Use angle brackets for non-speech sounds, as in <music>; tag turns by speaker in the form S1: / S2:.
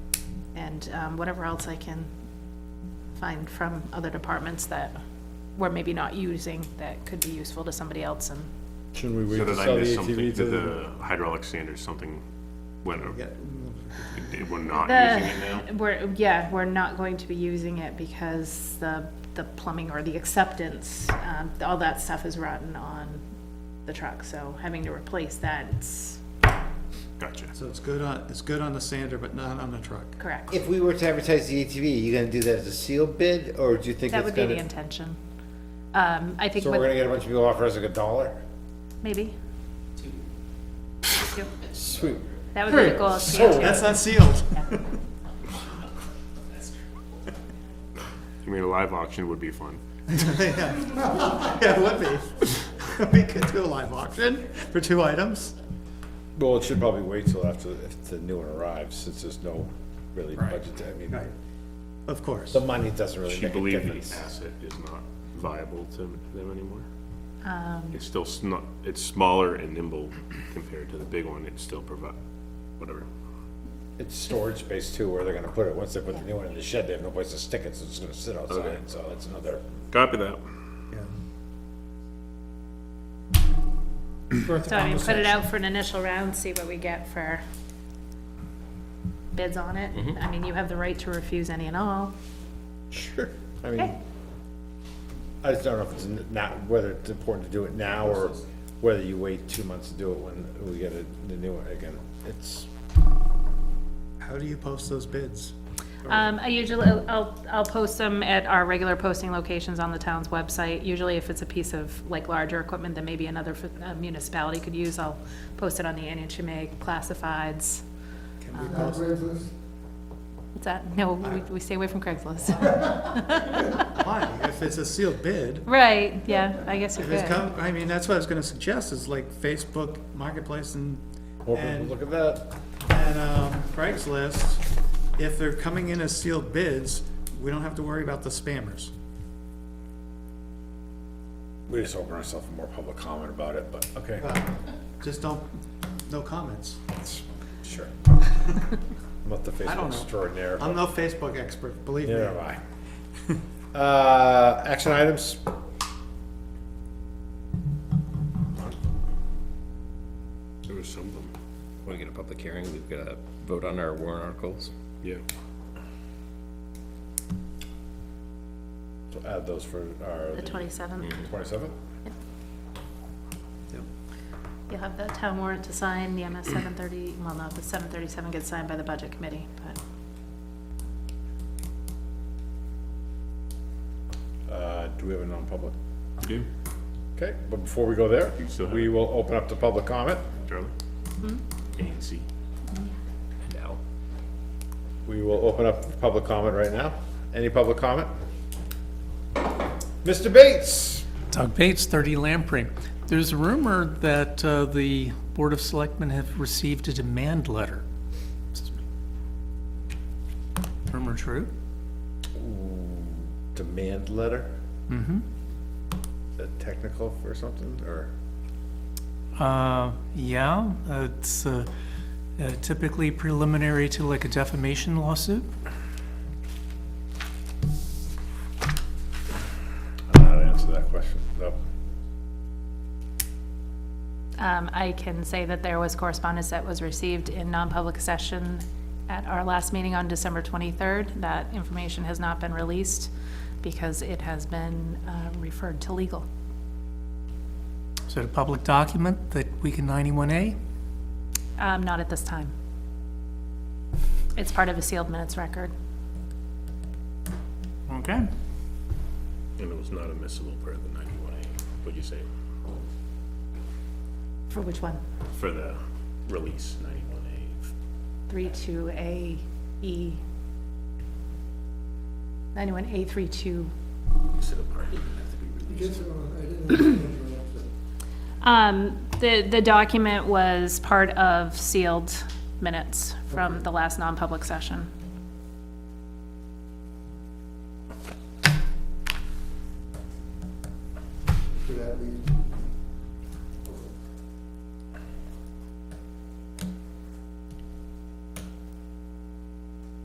S1: and um, whatever else I can find from other departments that we're maybe not using that could be useful to somebody else and
S2: Shouldn't we wait to
S3: So did I
S2: sell the
S3: miss something,
S2: ATV to
S3: did
S2: the?
S3: the hydraulic sanders, something went,
S2: Yeah,
S3: we're not
S1: The-
S3: using it now?
S1: We're, yeah, we're not going to be using it because the, the plumbing or the acceptance, um, all that stuff is rotten on the truck, so having to replace that, it's
S3: Gotcha.
S4: So it's good on, it's good on the sander, but not on the truck.
S1: correct.
S5: If we were to advertise the ATV, you gonna do that as a sealed bid, or do you think
S1: That
S5: it's
S1: would be the
S5: gonna?
S1: intention. Um, I think
S5: So we're gonna
S1: with,
S5: get a bunch of people offering us like a dollar?
S1: maybe. Yep,
S5: Sweet.
S1: That would be the goal. is to get
S5: Hmm. So
S1: to-
S4: That's not sealed. <laughs>
S3: I mean, a live auction would be fun.
S4: Yeah, it would <laughs> be. We could do a live auction for two items.
S2: Well, it should probably wait till after, if the new one arrives, since there's no really budget, I mean,
S4: Of course.
S5: The money doesn't really
S3: She
S5: make a
S3: believed the
S5: difference.
S3: asset is not viable to them anymore. It's still not, it's smaller and nimble compared to the big one, it still provide, whatever.
S5: It's storage space too, where they're gonna put it, once they put the new one in the shed, they have no place to stick it, so it's gonna sit outside, so that's another.
S3: Copy that.
S1: So I mean, put it out for an initial round, see what we get for bids on it. I mean, you have the right to refuse any and all.
S5: Sure. I mean,
S1: Okay.
S5: I just don't know if it's n- not, whether it's important to do it now, or whether you wait two months to do it when we get a- the new one again. It's,
S4: How do you post those bids?
S1: Um, I usually, I'll, I'll post them at our regular posting locations on the town's website. Usually if it's a piece of like larger equipment that maybe another f- uh, municipality could use, I'll post it on the NHMA classifieds. Um,
S4: Can we post?
S1: What's that? No, we, we stay away from Craigslist.
S4: <laughs> Why? If it's a sealed
S1: <laughs>
S4: bid,
S1: Right, yeah, I guess you
S4: if it's
S1: could.
S4: come, I mean, that's what I was gonna suggest, is like Facebook Marketplace and,
S5: well,
S4: And-
S5: look at that.
S4: and um, Craigslist. If they're coming in as sealed bids, we don't have to worry about the spammers.
S5: We just open ourselves for more public comment about it, but, okay,
S4: Just don't, no comments.
S5: <laughs> sure. I'm not the
S4: don't
S5: Facebook
S4: know.
S5: extraordinaire.
S4: I'm no Facebook expert, believe me.
S5: Neither am I. <laughs> Uh, action items?
S3: There was some of them,
S6: Want to get a public hearing, we've got to vote on our warrant articles.
S3: yeah.
S5: So add those for
S1: The
S5: our
S1: twenty-seventh,
S5: twenty-seventh?
S1: you'll have the town warrant to sign, the MS seven thirty, well, no, the seven thirty-seven gets signed by the budget committee, but.
S5: Uh, do we have a non-public?
S3: Do,
S5: Okay, but before we go there,
S3: still have
S5: we
S3: it.
S5: will open up to public comment.
S3: Charlie? A and C.
S6: Now,
S5: We will open up for public comment right now. Any public comment? Mr. Bates?
S7: Doug Bates, 30 Lamprey. There's a rumor that uh, the Board of Selectmen have received a demand letter. Rumor true?
S5: Demand letter? Mm-hmm. technical for something, or?
S7: Uh, Yeah, uh, it's uh, uh, typically preliminary to like a defamation lawsuit.
S5: I don't know how to answer that question, no.
S1: Um, I can say that there was correspondence that was received in non-public session at our last meeting on December twenty-third. That information has not been released because it has been, uh, referred to legal.
S7: Is it a public document that we can 91A?
S1: Um, not at this time. It's part of a sealed minutes record.
S7: Okay.
S3: And it was not admissible per the ninety-one A, what'd you say,
S1: For which one?
S3: for the release, ninety-one A?
S1: Three two A E. Ninety-one A three two. Um, the, the document was part of sealed minutes from the last non-public session.
S8: Could that lead